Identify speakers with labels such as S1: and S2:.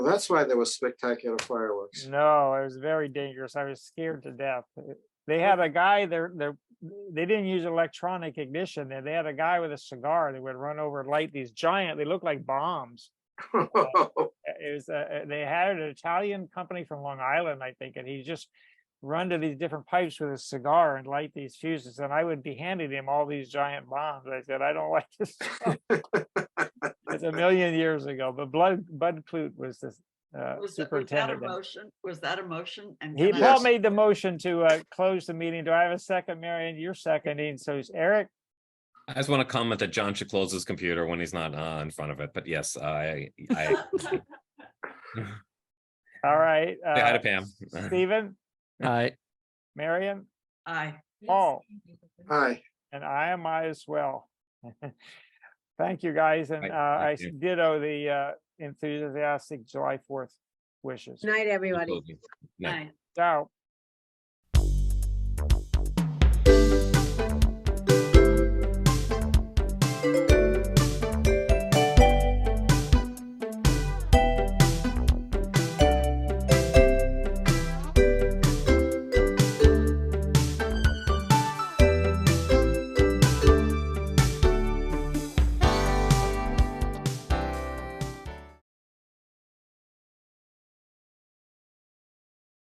S1: Well, That's why there was spectacular fireworks.
S2: No, it was very dangerous. I was scared to death. eh, They had a guy there, there, they didn't use electronic ignition there. They had a guy with a cigar that would run over and light these giant, they looked like bombs. Uh, It was, uh, uh, they hired an Italian company from Long Island, I think, and he just run to these different pipes with a cigar and light these fuses. And I would be handing him all these giant bombs. I said, I don't like this. stuff." It's a million years ago, but Bud, Bud Clute was the uh,
S3: Was that, was that a
S2: superintendent.
S3: motion? Was that a motion? And
S2: He,
S3: can I-
S1: Yes.
S2: Paul made the motion to uh, close the meeting. Do I have a second, Marion? You're seconding. So it's Eric.
S4: I just want to comment that John should close his computer when he's not uh, in front of it, but yes, I, I, Mm-hmm.
S2: All right.
S4: I had
S2: uh,
S4: a Pam.
S2: Stephen,
S5: Aye.
S2: Marion,
S3: Aye.
S2: Paul,
S1: Hi,
S2: and I am I as well. Thank you, guys. And
S4: Right,
S2: uh, I
S4: thank you.
S2: ditto the uh, enthusiastic July 4th wishes.
S6: Night, everybody.
S4: Night.
S3: Aye.
S2: Ciao.